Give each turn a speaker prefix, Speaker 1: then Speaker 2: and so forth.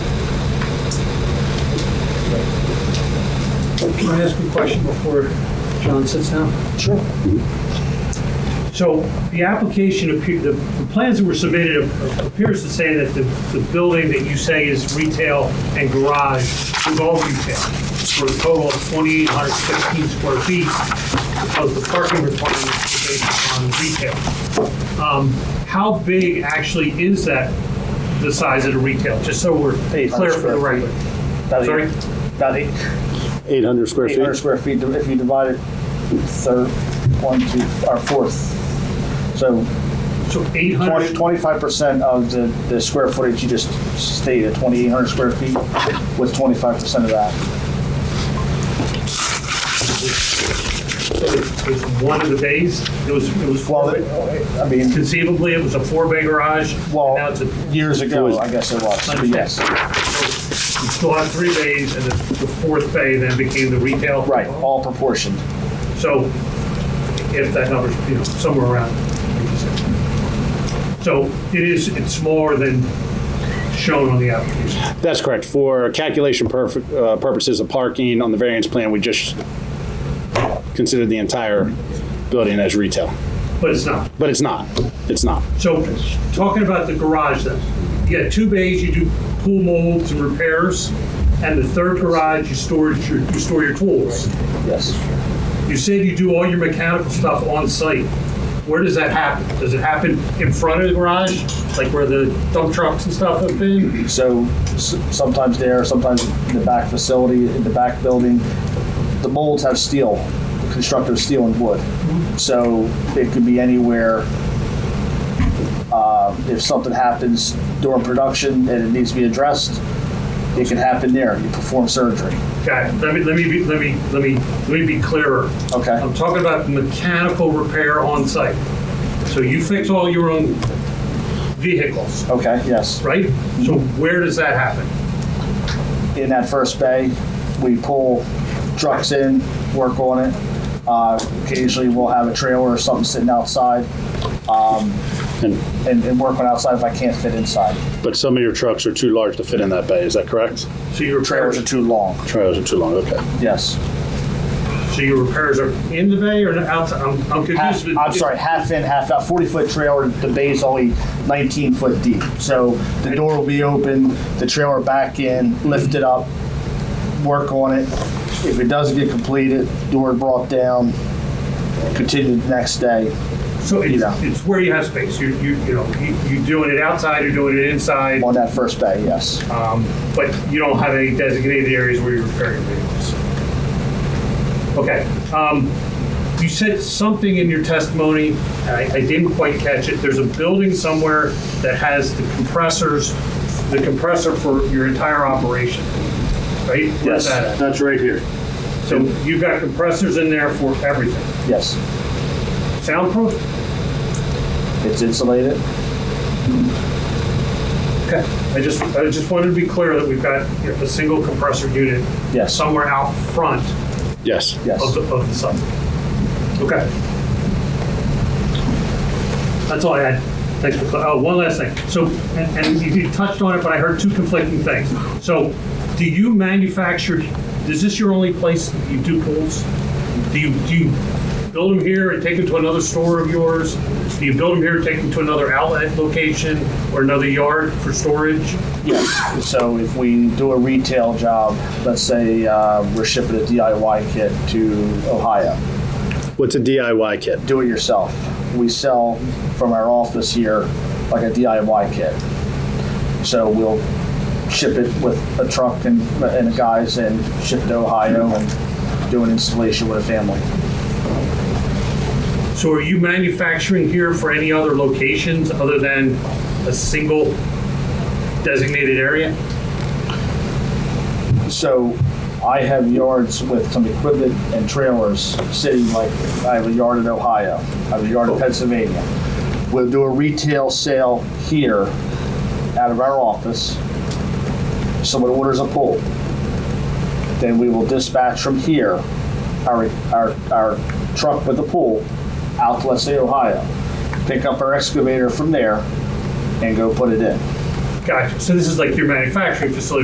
Speaker 1: Can I ask you a question before John sits down?
Speaker 2: Sure.
Speaker 1: So the application, appear- the the plans that were submitted appears to say that the the building that you say is retail and garage is all retail, for a total of 2,816 square feet, because the parking requirement is based on retail. Um, How big actually is that, the size of the retail, just so we're clear
Speaker 2: Eight hundred
Speaker 1: for the
Speaker 2: square feet.
Speaker 1: record?
Speaker 2: About eight-
Speaker 1: Sorry?
Speaker 2: About eight,
Speaker 3: 800 square
Speaker 2: eight hundred
Speaker 3: feet.
Speaker 2: square feet, if you divide it third, one, two, or fourth. So
Speaker 1: So 800?
Speaker 2: twenty-five percent of the, the square footage you just stated, twenty-eight hundred square feet, with twenty-five percent of that.
Speaker 1: It was one of the bays. It was, it was
Speaker 2: Well,
Speaker 1: four, bay-
Speaker 2: I mean,
Speaker 1: conceivably, it was a four-bay garage. and
Speaker 2: Well-
Speaker 1: Now it's a,
Speaker 2: years
Speaker 3: It was-
Speaker 2: ago, I guess it was, but yes.
Speaker 1: you still have three bays, and the the fourth bay then became the retail.
Speaker 2: Right, all proportioned.
Speaker 1: So if that number's, you know, somewhere around. So it is, it's smaller than shown on the application.
Speaker 3: That's correct. For calculation perf- uh, purposes of parking on the variance plan, we just considered the entire building as retail.
Speaker 1: But it's not.
Speaker 3: But it's not. It's not.
Speaker 1: So talking about the garage then, you got two bays, you do pool molds and repairs, and the third garage, you store your, you store your tools.
Speaker 2: Yes.
Speaker 1: You said you do all your mechanical stuff on site. Where does that happen? Does it happen in front of the garage, like where the dump trucks and stuff have been?
Speaker 2: So s- sometimes there, sometimes in the back facility, in the back building. The molds have steel, constructed of steel and wood. So it could be anywhere. Uh, If something happens during production and it needs to be addressed, it can happen there. You perform surgery.
Speaker 1: Okay, let me, let me, be- let me, let me, let me be clearer.
Speaker 2: Okay.
Speaker 1: I'm talking about mechanical repair on site. So you fix all your own vehicles,
Speaker 2: Okay, yes.
Speaker 1: right? So where does that happen?
Speaker 2: In that first bay, we pull trucks in, work on it. Uh, Occasionally, we'll have a trailer or something sitting outside
Speaker 3: And,
Speaker 2: and and work on outside if I can't fit inside.
Speaker 3: but some of your trucks are too large to fit in that bay. Is that correct?
Speaker 1: So your repairs,
Speaker 2: trailers are too long.
Speaker 3: Trailers are too long. Okay.
Speaker 2: Yes.
Speaker 1: so your repairs are in the bay or outside? I'm, I'm
Speaker 2: Half,
Speaker 1: confused. with-
Speaker 2: Uh, I'm sorry, half in, half out. 40 foot trailer, the bay is only 19 foot deep. So the door will be open, the trailer back in, lift it up, work on it. If it doesn't get completed, door brought down, continue the next day.
Speaker 1: So it's,
Speaker 2: Yeah.
Speaker 1: it's where you have space. You, you, you know, you- you're doing it outside, you're doing it inside,
Speaker 2: On that first bay, yes.
Speaker 1: um, but you don't have any designated areas where you're repairing vehicles. Okay, um, you said something in your testimony, and I, I didn't quite catch it. There's a building somewhere that has the compressors, the compressor for your entire operation, right? Where's that at?
Speaker 3: That's right here.
Speaker 1: So you've got compressors in there for everything.
Speaker 2: Yes.
Speaker 1: Soundproof?
Speaker 2: It's insulated.
Speaker 1: Okay, I just, I just wanted to be clear that we've got you know, a single compressor unit
Speaker 2: Yes.
Speaker 1: somewhere out front
Speaker 3: Yes.
Speaker 2: Yes.
Speaker 1: of the, of the site. Okay. That's all I had. Thanks for, cl- oh, one last thing. So, and, and you you touched on it, but I heard two conflicting things. So, do you manufacture, is this your only place that you do pools? Do you, do you build them here and take them to another store of yours? Do you build them here, and take them to another outlet location or another yard for storage?
Speaker 2: Yes. So if we do a retail job, let's say uh, we're shipping a DIY kit to Ohio.
Speaker 3: What's a DIY kit?
Speaker 2: do it yourself. We sell from our office here like a DIY kit. So we'll ship it with a truck and, and guys and ship it to Ohio and do an installation with a family.
Speaker 1: So are you manufacturing here for any other locations other than a single designated area?
Speaker 2: So I have yards with some equipment and trailers sitting like, I have a yard in Ohio, I have a yard in Pennsylvania. We'll do a retail sale here out of our office. Someone orders a pole. Then we will dispatch from here, our, our, our truck with the pole out to, let's say, Ohio. Pick up our excavator from there and go put it in.
Speaker 1: Gotcha. So this is like your manufacturing facility